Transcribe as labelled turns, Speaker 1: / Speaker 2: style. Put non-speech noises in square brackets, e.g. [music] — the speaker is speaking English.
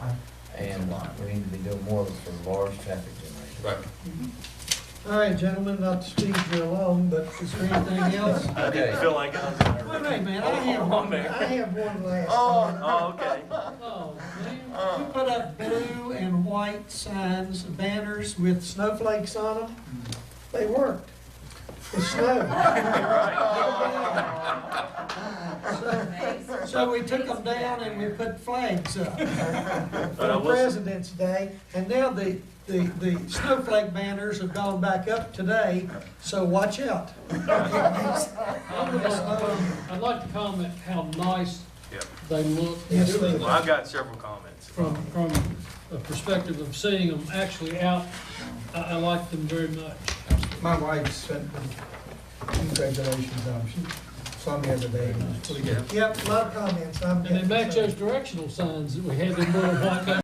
Speaker 1: And we need to be doing more for large traffic generation.
Speaker 2: Right.
Speaker 3: All right, gentlemen, not to speak for long, but is there anything [laughs] else? Wait
Speaker 1: Okay.
Speaker 4: Feel like it?
Speaker 3: a minute, man, I have one, I have one last.
Speaker 4: Oh, okay.
Speaker 3: [laughs] Oh, man, you put up blue and white signs, banners with snowflakes on them. They worked. The
Speaker 4: [laughs]
Speaker 3: snow. So- So we took them down and we put flags up
Speaker 4: But I
Speaker 3: for
Speaker 4: will, s-
Speaker 3: President's Day. And now the, the, the snowflake banners have gone back up today, so watch out. Uh,
Speaker 5: I would like to com- I'd like to comment how nice
Speaker 4: Yeah.
Speaker 5: they look.
Speaker 3: Yes, they
Speaker 4: well, I've got several comments.
Speaker 5: From, from the perspective of seeing them actually out, I, I like them very much.
Speaker 6: My wife sent me congratulations on, she saw me the other day, and it was pretty good.
Speaker 3: Yep, a lot of comments. I'm
Speaker 5: And they
Speaker 3: getting
Speaker 5: match
Speaker 3: some.
Speaker 5: those directional signs that we had in Little White Mountain